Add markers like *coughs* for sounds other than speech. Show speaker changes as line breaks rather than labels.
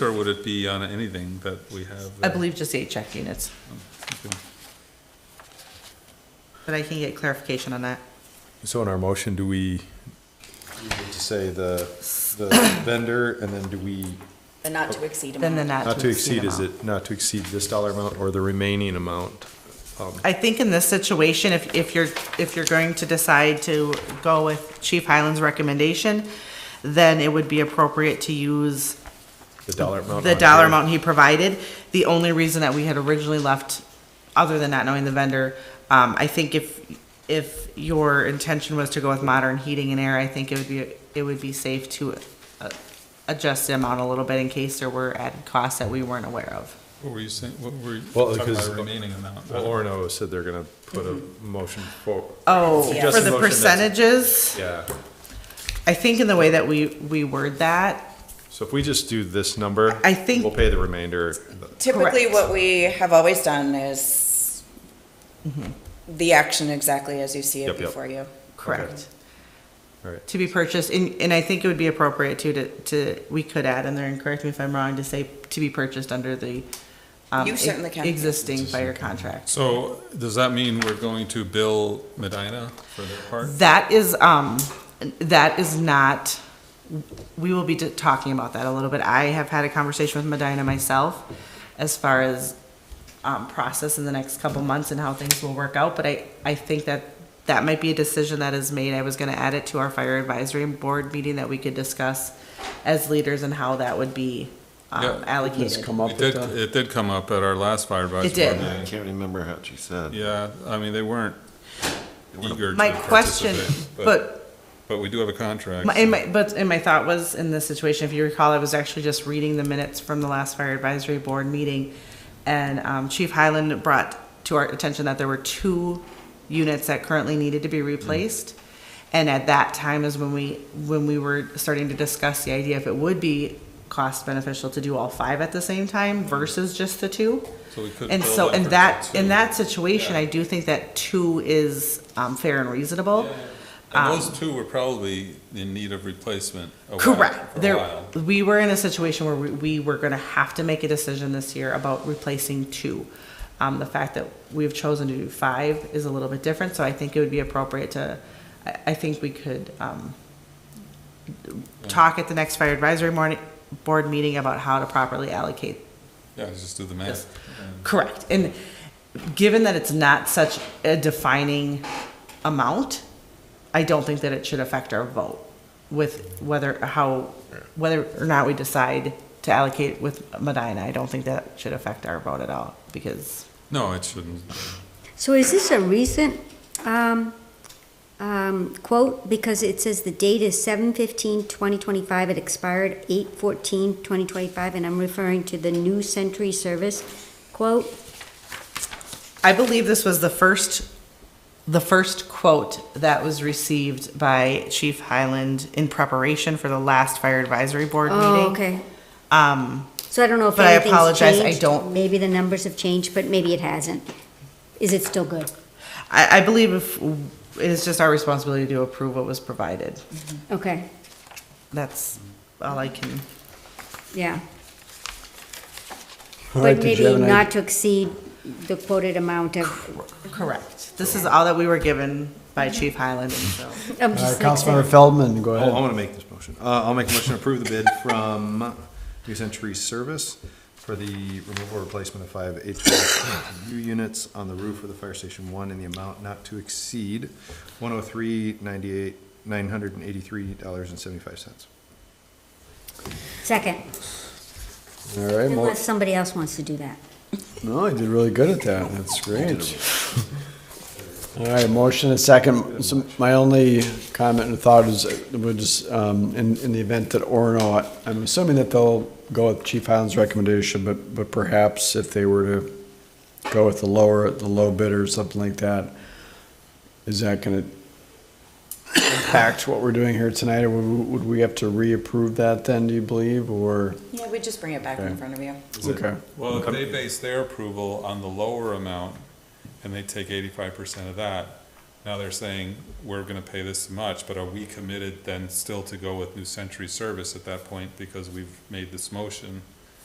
Or would it be on anything that we have?
I
that-
believe just eight check units,
Okay.
but I can get clarification on that.
So in our motion, do we? need to say the, the
*coughs*
vendor, and then do we,
But not to exceed
Then the
amount.
not to exceed
is
amount.
it not to exceed this dollar amount or the remaining amount? Um,
I think in this situation, if, if you're, if you're going to decide to go with Chief Highland's recommendation, then it would be appropriate to use
The dollar amount?
the
on
dollar
here.
amount he provided. The only reason that we had originally left, other than not knowing the vendor, um, I think if, if your intention was to go with modern heating and air, I think it would be, it would be safe to uh, adjust the amount a little bit in case there were added costs that we weren't aware of.
What were you saying, what were you
Well,
talking
because-
about remaining amount?
Well, Orno said they're gonna put a motion for,
Mm-hmm. Oh,
Yeah.
for
Just a
the
motion that's-
percentages,
yeah.
I think in the way that we, we word that,
So if we just do this number.
I think-
We'll pay the remainder.
Typically,
Correct.
what we have always done is
Mm-hmm.
the action exactly as you see it
Yep, yep.
before you.
correct,
All right.
to be purchased, and, and I think it would be appropriate too, to, to, we could add in there, and correct me if I'm wrong, to say to be purchased under the um,
You certainly can.
existing fire contract.
So does that mean we're going to bill Medina for their part?
That is, um, that is not, we will be d- talking about that a little bit. I have had a conversation with Medina myself as far as, um, process in the next couple months and how things will work out, but I, I think that that might be a decision that is made. I was gonna add it to our fire advisory board meeting that we could discuss as leaders and how that would be, um,
Yeah.
allocated.
It did, it did come up at our last fire advisory.
It did.
board
Yeah, I
meeting.
can't remember how she said.
Yeah, I mean, they weren't eager to
My question,
participate,
but
But we do have a contract.
My, and my, but, and my thought was, in this situation, if you recall, I was actually just reading the minutes from the last fire advisory board meeting, and, um, Chief Highland brought to our attention that there were two units that currently needed to
Mm.
be replaced. And at that time is when we, when we were starting to discuss the idea if it would be cost beneficial to do all five at the same time versus just the two.
Mm. So we could
And
build
so,
up
in
for
that,
two.
in that situation, I do think that two is, um, fair and reasonable.
And those two were probably in need of replacement a while- for
Correct.
a
There,
while.
we were in a situation where we, we were gonna have to make a decision this year about replacing two. Um, the fact that we've chosen to do five is a little bit different, so I think it would be appropriate to, I, I think we could, um, talk at the next fire advisory morning, board meeting about how to properly allocate
Yeah, just do the math.
this. Correct. And given that it's not such a defining amount, I don't think that it should affect our vote with whether, how, whether or not we decide to allocate with Medina. I don't think that should affect our vote at all because
No, it shouldn't.
So is this a recent um, um, quote? Because it says the date is 7/15/2025, it expired 8/14/2025, and I'm referring to the New Century Service quote.
I believe this was the first, the first quote that was received by Chief Highland in preparation for the last fire advisory board meeting.
Oh, okay.
Um,
So I don't know if
But I
anything's
apologize, I
changed.
don't-
Maybe the numbers have changed, but maybe it hasn't. Is it still good?
I, I believe if, it is just our responsibility to approve what was provided.
Okay,
That's all I can.
yeah.
All right,
But
did
maybe
you have an idea?
not to exceed the quoted amount of,
Correct. This is all that we were given by Chief Highland, and so.
I'm
Uh,
just like
Councilmember
saying-
Feldman, go
Oh, I
ahead.
want to make this motion. Uh, I'll make a motion to approve the bid from New Century Service for the removal or replacement of five HVAC units on the roof of the fire station one in the amount not to exceed one oh three ninety-eight, nine hundred and eighty-three dollars and seventy-five cents.
Second,
All right, mo-
unless somebody else wants to do that.
no, I did really good at that, that's great. All right, motion and second, So my only comment and thought is, uh, would just, um, in, in the event that Orno, I'm assuming that they'll go with Chief Highland's recommendation, but, but perhaps if they were to go with the lower, the low bidder or something like that, is that gonna impact what we're doing here tonight, or would, we- would we have to reapprove that then, do you believe, or?
Yeah, we just bring it back
Okay.
in front of you.
Okay.
Well, if they base their approval on the lower amount, and they take eighty-five percent of that, now they're saying, we're gonna pay this much, but are we committed then still to go with New Century Service at that point, because we've made this motion?